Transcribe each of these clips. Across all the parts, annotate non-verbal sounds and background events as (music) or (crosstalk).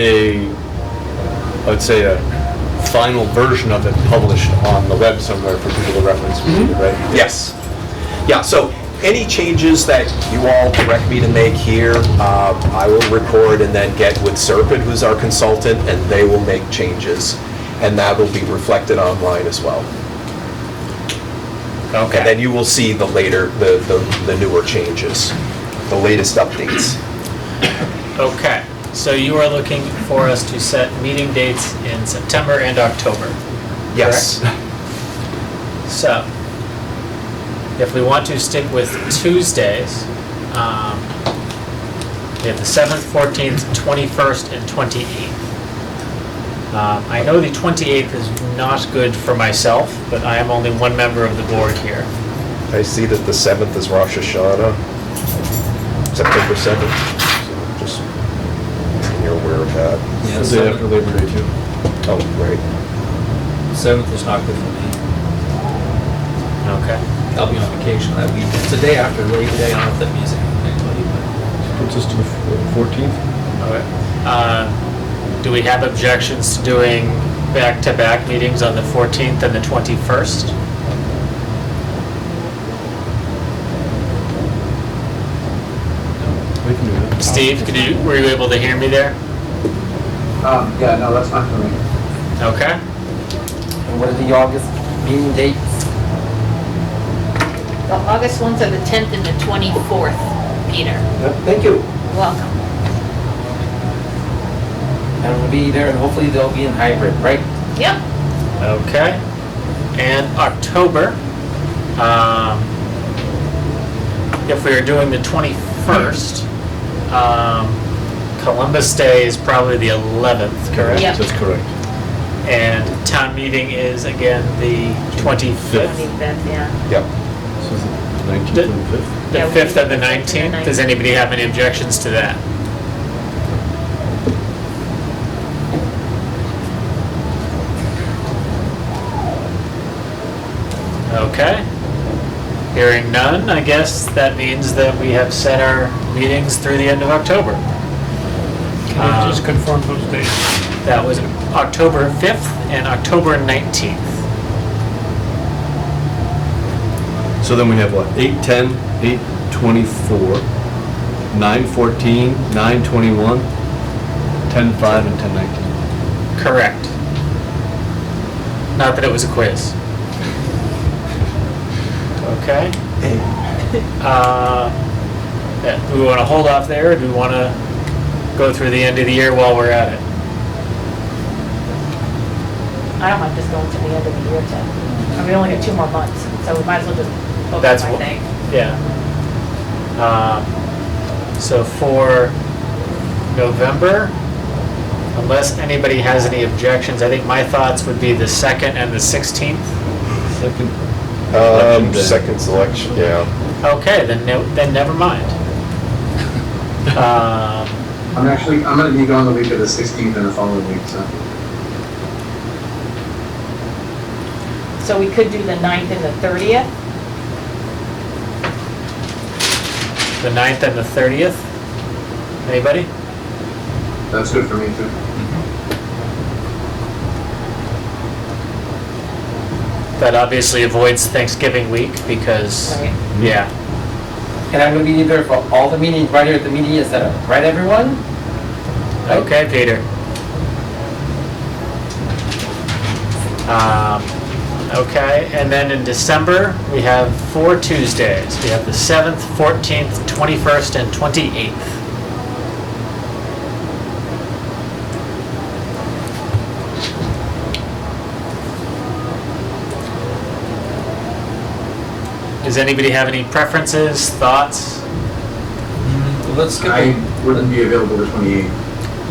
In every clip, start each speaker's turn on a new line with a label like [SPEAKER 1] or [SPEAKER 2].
[SPEAKER 1] a, I would say a final version of it published on the web somewhere for people to reference,
[SPEAKER 2] Mm-hmm.
[SPEAKER 1] right?
[SPEAKER 2] Yes. Yeah, so any changes that you all direct me to make here, uh, I will record and then get with Serpent, who's our consultant, and they will make changes. And that will be reflected online as well. And then
[SPEAKER 3] Okay.
[SPEAKER 2] you will see the later, the, the- the newer changes, the latest updates.
[SPEAKER 3] Okay. So you are looking for us to set meeting dates in September and October.
[SPEAKER 2] Yes.
[SPEAKER 3] So if we want to stick with Tuesdays, um, we have the 7th, 14th, 21st, and 28th. Um, I know the 28th is not good for myself, but I am only one member of the board here.
[SPEAKER 2] I see that the 7th is Rosh Hashanah, September 7th. So Just, you're aware of that.
[SPEAKER 4] Yeah,
[SPEAKER 1] The day after
[SPEAKER 4] seventh,
[SPEAKER 1] Labor Day too.
[SPEAKER 2] Oh, right.
[SPEAKER 4] seventh is not good for me.
[SPEAKER 3] Okay.
[SPEAKER 4] I'll be on vacation that weekend. It's the day after Labor Day. I don't know if that means anything
[SPEAKER 1] Puts us to the fourteenth.
[SPEAKER 3] Okay. Uh, Do we have objections to doing back-to-back meetings on the 14th and the 21st?
[SPEAKER 1] We can do that.
[SPEAKER 3] Steve, could you, were you able to hear me there?
[SPEAKER 5] Um, yeah, no, that's not for me.
[SPEAKER 3] Okay.
[SPEAKER 5] And what are the August meeting dates?
[SPEAKER 6] The August ones are the 10th and the 24th, Peter.
[SPEAKER 5] Thank you.
[SPEAKER 6] Welcome.
[SPEAKER 5] And we'll be there, and hopefully they'll be in hybrid, right?
[SPEAKER 6] Yep.
[SPEAKER 3] Okay. And October, um, if we are doing the 21st, um, Columbus Day is probably the 11th, correct?
[SPEAKER 6] Yep.
[SPEAKER 1] That's correct.
[SPEAKER 3] And town meeting is again the 25th.
[SPEAKER 6] 25th, yeah.
[SPEAKER 2] Yep.
[SPEAKER 1] So is it nineteenth and fifth?
[SPEAKER 3] The
[SPEAKER 6] Yeah,
[SPEAKER 3] 5th and the
[SPEAKER 6] we need to fix it in the
[SPEAKER 3] 19th. Does anybody have any objections to that? Okay. Hearing none, I guess that means that we have set our meetings through the end of October. Um,
[SPEAKER 7] Can you just confirm those dates?
[SPEAKER 3] That was October 5th and October 19th.
[SPEAKER 1] So then we have what, eight ten, eight twenty-four, nine fourteen, nine twenty-one, ten five, and ten nineteen.
[SPEAKER 3] Correct. Not that it was a quiz. Okay. Uh, yeah, Do we want to hold off there, or do we want to go through the end of the year while we're at it?
[SPEAKER 6] I don't mind just going to the end of the year to, I mean, we only got two more months, so we might as well just
[SPEAKER 3] That's
[SPEAKER 6] focus, I
[SPEAKER 3] what-
[SPEAKER 6] think.
[SPEAKER 3] Yeah. Um, So for November, unless anybody has any objections, I think my thoughts would be the 2nd and the 16th.
[SPEAKER 1] Second.
[SPEAKER 2] Um,
[SPEAKER 1] Election day.
[SPEAKER 2] second selection, yeah.
[SPEAKER 3] Okay, then, no- then
[SPEAKER 8] (laughs)
[SPEAKER 3] never mind. Um,
[SPEAKER 8] I'm actually, I'm gonna be gone the week of the 16th and the following week, so.
[SPEAKER 6] So we could do the 9th and the 30th.
[SPEAKER 3] The 9th and the 30th? Anybody?
[SPEAKER 8] That's good for me too.
[SPEAKER 3] That obviously avoids Thanksgiving week because,
[SPEAKER 6] Right.
[SPEAKER 3] yeah.
[SPEAKER 5] And I'm gonna be there for all the meetings, right here at the meeting is set up, right, everyone?
[SPEAKER 3] Okay, Peter. Um, Okay, and then in December, we have four Tuesdays. We have the 7th, 14th, 21st, and 28th. Does anybody have any preferences, thoughts?
[SPEAKER 4] but let's skip.
[SPEAKER 8] I
[SPEAKER 4] it.
[SPEAKER 8] wouldn't be available the 28th.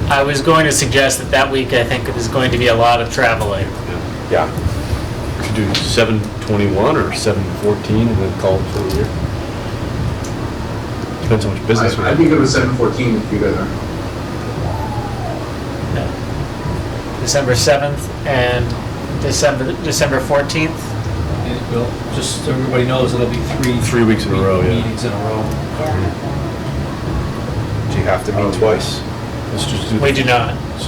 [SPEAKER 3] I was going to suggest that that week, I think, is going to be a lot of traveling.
[SPEAKER 2] Yeah.
[SPEAKER 1] Could do seven twenty-one or seven fourteen, and then call it for the year. Depends how much business we
[SPEAKER 8] I- I'd
[SPEAKER 1] have.
[SPEAKER 8] be good with 7:14 if you guys are.
[SPEAKER 3] December 7th and December, December 14th.
[SPEAKER 4] And, Well, just so everybody knows, it'll be three.
[SPEAKER 1] Three weeks in a row, yeah.
[SPEAKER 4] Meetings in a row.
[SPEAKER 6] Yeah.
[SPEAKER 2] Do you have to meet twice?
[SPEAKER 1] Let's just do.
[SPEAKER 3] We do not.